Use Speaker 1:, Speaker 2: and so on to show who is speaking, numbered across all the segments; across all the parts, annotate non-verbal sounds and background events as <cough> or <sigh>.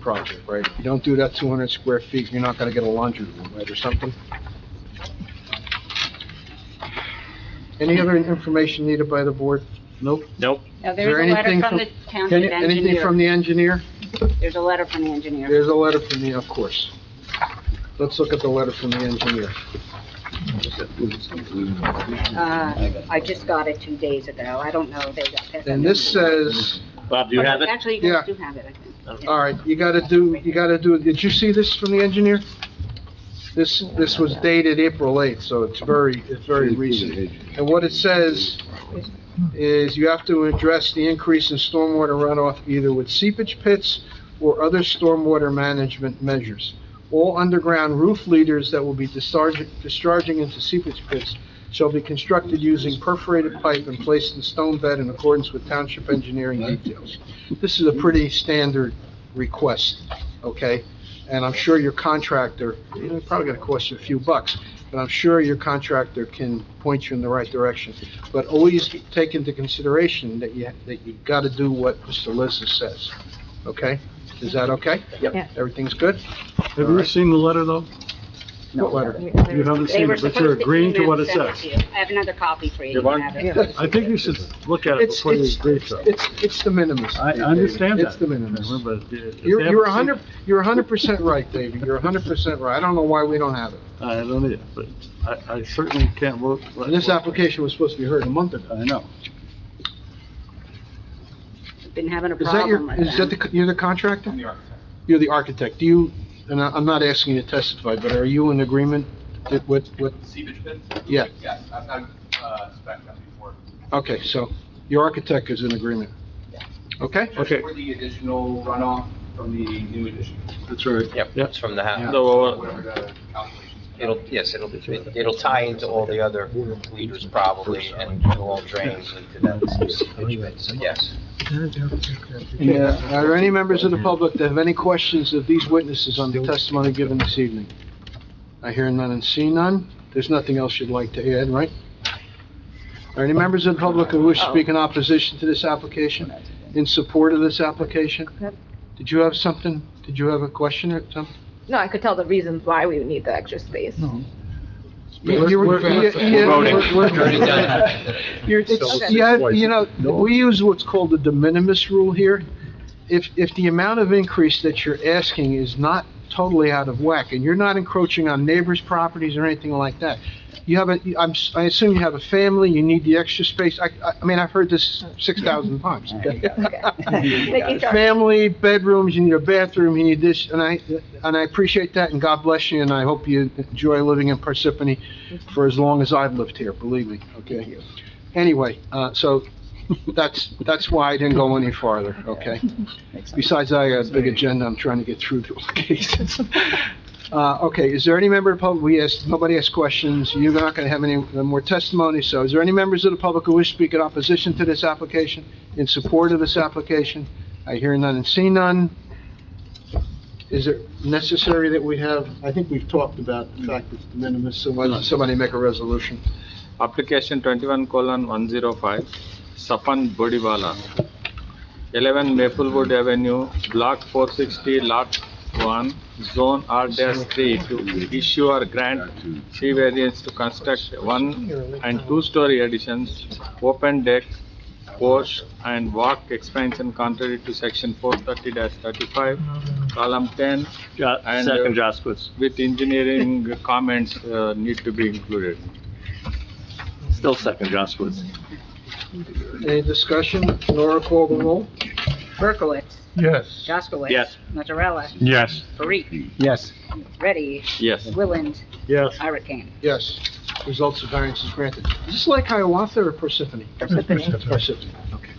Speaker 1: project, right? If you don't do that 200 square feet, you're not gonna get a laundry room, right, or something? Any other information needed by the board? Nope.
Speaker 2: Nope.
Speaker 3: Now,
Speaker 1: there
Speaker 3: there's a letter
Speaker 1: anything
Speaker 3: from
Speaker 1: from-
Speaker 3: the
Speaker 1: Can-
Speaker 3: township
Speaker 1: Anything from
Speaker 3: engineer.
Speaker 1: the engineer?
Speaker 3: There's a letter from the engineer.
Speaker 1: There's a letter from the, of course. Let's look at the letter from the engineer.
Speaker 3: Uh, I just got it two days ago. I don't know, they got passed.
Speaker 1: And this says,
Speaker 2: Bob, do you have it?
Speaker 3: Actually, you guys
Speaker 1: Yeah.
Speaker 3: do have it, I think.
Speaker 1: all right, you gotta do, you gotta do, did you see this from the engineer? This, this was dated April 8th, so it's very, it's very recent. And what it says is you have to address the increase in stormwater runoff either with seepage pits or other stormwater management measures. All underground roof leaders that will be discharging, discharging into seepage pits shall be constructed using perforated pipe and placed in stone bed in accordance with township engineering details. This is a pretty standard request, okay? And I'm sure your contractor, you know, it's probably gonna cost you a few bucks, but I'm sure your contractor can point you in the right direction. But always take into consideration that you, that you gotta do what Mr. Lizza says, okay? Is that okay?
Speaker 2: Yep.
Speaker 4: Yeah.
Speaker 1: Everything's good?
Speaker 5: Have you seen the letter, though?
Speaker 1: What letter?
Speaker 5: You haven't
Speaker 3: They
Speaker 5: seen
Speaker 3: were
Speaker 5: it, but you're
Speaker 3: supposed to
Speaker 5: agreeing to
Speaker 3: email
Speaker 5: what it
Speaker 3: send to
Speaker 5: says.
Speaker 3: you. I have another copy for you. You
Speaker 2: Yvonne?
Speaker 3: can have
Speaker 4: Yeah.
Speaker 3: it.
Speaker 5: I think you should look at it
Speaker 1: It's,
Speaker 5: before you
Speaker 1: it's,
Speaker 5: agree to it.
Speaker 1: it's, it's the minimus.
Speaker 5: I I understand that.
Speaker 1: It's the minimus.
Speaker 5: But if- if they
Speaker 1: You're,
Speaker 5: haven't
Speaker 1: you're a
Speaker 5: seen-
Speaker 1: hundred, you're a hundred percent right, David, you're a hundred percent right. I don't know why we don't have it.
Speaker 5: I don't either, but I, I certainly can't work.
Speaker 1: And This application was supposed to be heard a month ago.
Speaker 5: I know.
Speaker 3: Been having a
Speaker 1: Is that
Speaker 3: problem
Speaker 1: your,
Speaker 3: with
Speaker 1: is that
Speaker 3: them.
Speaker 1: the, you're the contractor? I'm the architect. You're the architect. Do you, and I- I'm not asking you to testify, but are you in agreement that what, what,
Speaker 6: Seepage pits?
Speaker 1: Yeah.
Speaker 6: Yes, I've, I've, uh, spec that before.
Speaker 1: okay, so your architect is in agreement? Okay?
Speaker 6: Just
Speaker 5: Okay.
Speaker 6: For the additional runoff from the new addition,
Speaker 1: That's right.
Speaker 7: Yep,
Speaker 5: Yep.
Speaker 7: it's from the house.
Speaker 2: So,
Speaker 6: whatever the calculations. come out.
Speaker 7: It'll, yes, it'll, it'll tie into all the other leaders probably, and it all drains into that seepage bed, so yes.
Speaker 1: Yeah. Are there any members of the public that have any questions of these witnesses on the testimony given this evening? I hear none and see none. There's nothing else you'd like to add, right? Are any members of the public who wish to speak in opposition to this application, in support of this application?
Speaker 4: Yep.
Speaker 1: Did you have something? Did you have a question or something?
Speaker 4: No, I could tell the reasons why we would need the extra space.
Speaker 1: You- you-
Speaker 5: We're- we're-
Speaker 1: you- you-
Speaker 2: voting.
Speaker 8: <laughs>
Speaker 1: we're- we're-
Speaker 7: Already done.
Speaker 1: You're, it's, yeah, you know, we use what's called the de minimis rule here. If, if the amount of increase that you're asking is not totally out of whack, and you're not encroaching on neighbors' properties or anything like that, you have a, I'm, s- I assume you have a family, you need the extra space, I, I- I mean, I've heard this six thousand times. <laughs>
Speaker 4: Making sure-
Speaker 1: Family, bedrooms, you need a bathroom, you need this, and I, and I appreciate that, and God bless you, and I hope you enjoy living in Parsippany for as long as I've lived here, believe me, okay? Anyway, uh, so <laughs> that's, that's why I didn't go any farther, okay? Besides, I got a big agenda I'm trying to get through to all the cases. <laughs> Uh, okay, is there any member of the public, we asked, nobody asked questions, you're not gonna have any uh, more testimony, so is there any members of the public who wish to speak in opposition to this application, in support of this application? I hear none and see none. Is it necessary that we have, I think we've talked about the fact that it's de minimis, so why doesn't somebody make a resolution?
Speaker 8: application twenty-one colon one zero five, Sapan Bodiwala, eleven Maplewood Avenue, block four sixty, lot one, zone R dash three, to issue or grant three variance to construct one and two-story additions, open deck, porch, and walk expansion contrary to section four thirty thirty-five, column ten,
Speaker 2: Jo-
Speaker 8: And, uh,
Speaker 2: second Jaskowitz,
Speaker 8: with engineering <laughs> comments, uh, need to be included.
Speaker 2: still second Jaskowitz.
Speaker 1: Any discussion? Nora, call the roll.
Speaker 3: Berkowitz,
Speaker 5: Yes.
Speaker 3: Jaskowitz.
Speaker 2: Yes.
Speaker 3: Mazzarella,
Speaker 5: Yes.
Speaker 3: Parikh,
Speaker 5: Yes.
Speaker 3: Ready,
Speaker 8: Yes.
Speaker 3: Willand,
Speaker 5: Yes.
Speaker 3: Hurricane.
Speaker 1: Yes. Results of variance is granted. Is this like Hiawatha or Parsippany? Parsippany. okay.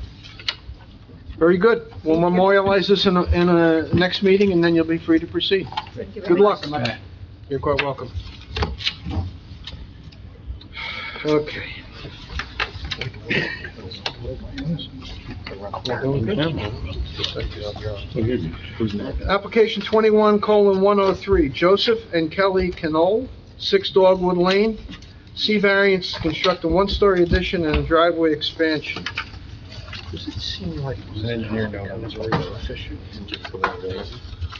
Speaker 1: Very good. We'll memorialize this in a, in a next meeting, and then you'll be free to proceed. Good luck. You're quite welcome. Okay. Application twenty-one colon one oh three, Joseph and Kelly Canole, Six Dogwood Lane. C variance to construct a one-story addition and a driveway expansion. Does it seem like?